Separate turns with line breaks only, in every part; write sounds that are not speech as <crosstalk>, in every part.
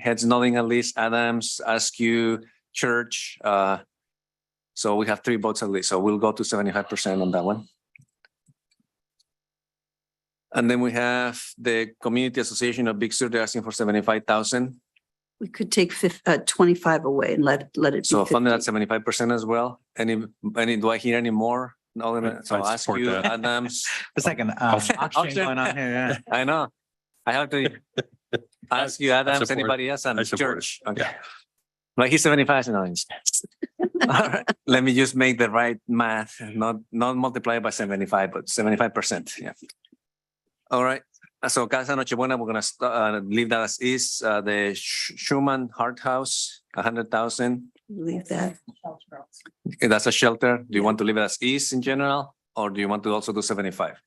heads nodding at least, Adams, Askew, Church. uh, So we have three votes at least, so we'll go to seventy-five percent on that one. And then we have the Community Association of Big Sur, they're asking for seventy-five thousand.
We could take fif, uh, twenty-five away and let, let it be
So funded at
fifty.
seventy-five percent as well. Any, any, do I hear any more? No, then,
I'd-
so
I'd
ask
support
you,
that.
Adams.
It's like an um,
Auction.
auction going on here, yeah.
<laughs> I know. I have
<laughs>
to ask you, Adams,
support-
anybody else and
I support it.
Church. Okay. Like he's seventy-five and nine. <laughs> Let me just make the right math, not, not multiply by seventy-five, but seventy-five percent, yeah. All right, Uh, so Casa Nochebuena, we're gonna st- uh, leave that as is, uh, the Sch- Schumann Hart House, a hundred thousand.
Leave that.
Okay, That's a shelter. Do you want to leave it as is in general, or do you want to also do seventy-five?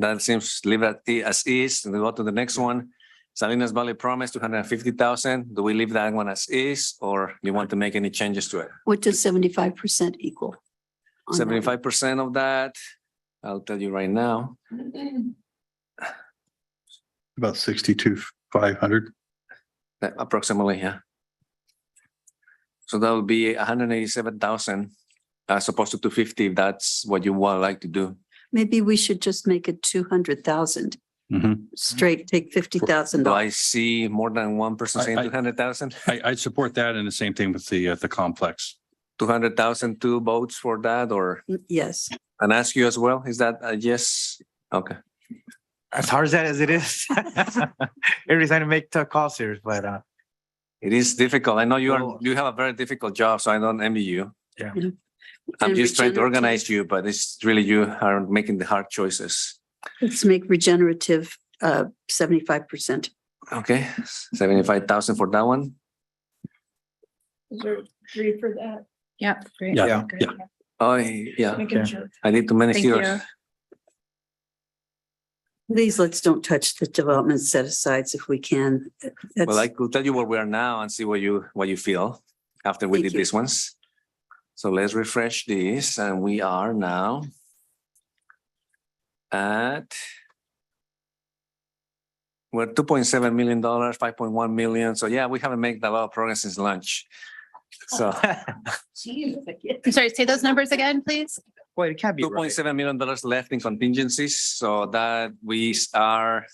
That seems leave it i- as is, and we go to the next one. Salinas Valley Promise, two hundred and fifty thousand. Do we leave that one as is, or you want to make any changes to it?
What does seventy-five percent equal? on that?
Seventy-five percent of that, I'll tell you right now,
About sixty-two, five hundred.
that approximately, yeah. So that would be hundred and eighty-seven thousand, as opposed to two fifty, if that's what you would like to do.
Maybe we should just make it two hundred thousand, Mm-hmm.
I,
straight, take fifty thousand
Do
dollars.
I see more than one person
I-
saying
I-
two hundred thousand?
I'd support that and the same thing with the, uh, the complex.
two hundred thousand two votes for that or,
Yes,
and ask you as well, is that a yes? Okay,
<laughs> As hard as that as it <laughs> is. Every time to make tough calls here, but <laughs> uh,
it is difficult. I know you are,
Oh.
you have a very difficult job, so I don't envy you.
Yeah.
Yeah.
I'm
And
just trying to
regenerative.
organize you, but it's really you are making the hard choices.
let's make regenerative, uh, seventy-five percent.
Okay, seventy-five thousand for that one.
Is there three for that?
Yep. great.
Yeah,
yeah,
Good.
yeah.
Oh, yeah,
Making
Okay.
sure.
I did too many
Thank you.
zeros.
Please, let's don't touch the development set asides if we can.
Well, I
That's,
could tell you where we are now and see what you, what you feel after we
Thank
did
you.
these ones. So let's refresh this and we are now at we're two point seven million dollars, five point one million. So yeah, we haven't made a lot of progress since lunch.
Oh,
So
I'm sorry, say those numbers again, please.
boy, it can't be
two
right.
point seven million dollars left in contingencies, so that we are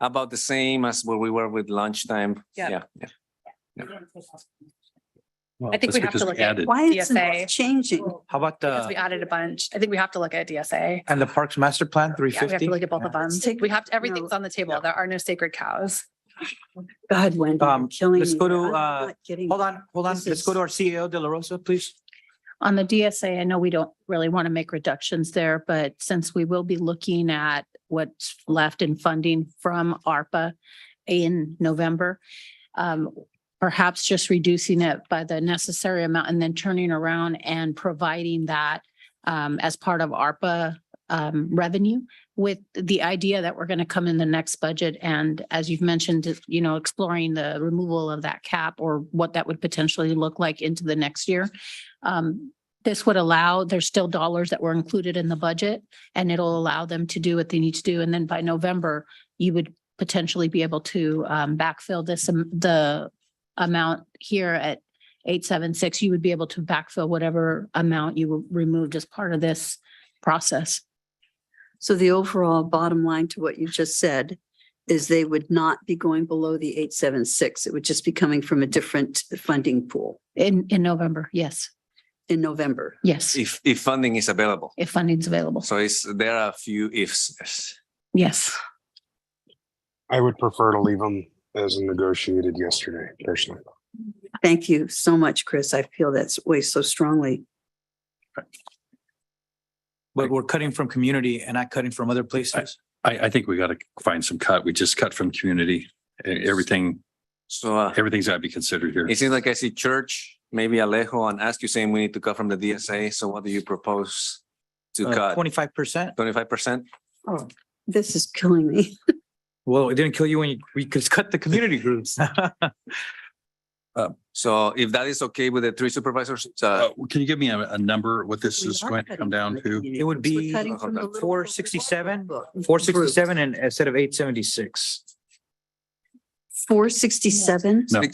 about the same as where we were with lunchtime.
Yeah.
Yeah.
<laughs>
I think we have to look at-
why is
DFA.
it changing?
How about
Because we
the,
added a bunch. I think we have to look at DSA.
and the Parks Master Plan, three
Yeah, we have
fifty?
to look at both of them.
Let's take-
We have, to. everything's
no.
on the table. There are no sacred cows.
God, Wendy, you're
Um,
killing me.
let's go to,
I'm
uh,
not getting-
Hold on, hold on.
This
Let's go to our CEO, De La Rosa, please.
On the DSA, I know we don't really want to make reductions there, but since we will be looking at what's left in funding from ARPA in November, um, perhaps just reducing it by the necessary amount and then turning around and providing that um, as part of ARPA um, revenue with the idea that we're going to come in the next budget and as you've mentioned, you know, exploring the removal of that cap or what that would potentially look like into the next year. Um, this would allow, there's still dollars that were included in the budget and it'll allow them to do what they need to do. And then by November, you would potentially be able to um, backfill this, um, the amount here at eight, seven, six, you would be able to backfill whatever amount you removed as part of this process.
So the overall bottom line to what you just said is they would not be going below the eight, seven, six. It would just be coming from a different funding pool
In, in November, yes,
in November.
yes,
If, if funding is available.
if funding's available,
So it's, there are a few ifs.
yes.
I would prefer to leave them as negotiated yesterday, personally.
Thank you so much, Chris. I feel that way so strongly.
But we're cutting from community and not cutting from other places.
I, I think we got to find some cut. We just cut from community. E- Everything,
So uh,
everything's got to be considered here.
it seems like I see church, maybe Alejo and ask you saying we need to cut from the DSA. So what do you propose to cut?
Uh, Twenty-five percent?
Twenty-five percent?
Oh, this is killing me.
Well, it didn't kill you when you, we could cut the community <laughs> groups.
So if that is okay with the three supervisors, uh,
Uh, Can you give me a, a number, what <laughs> this is going to come down to?
It would be four sixty-seven, four sixty-seven and instead of eight seventy-six.
four sixty-seven?
No.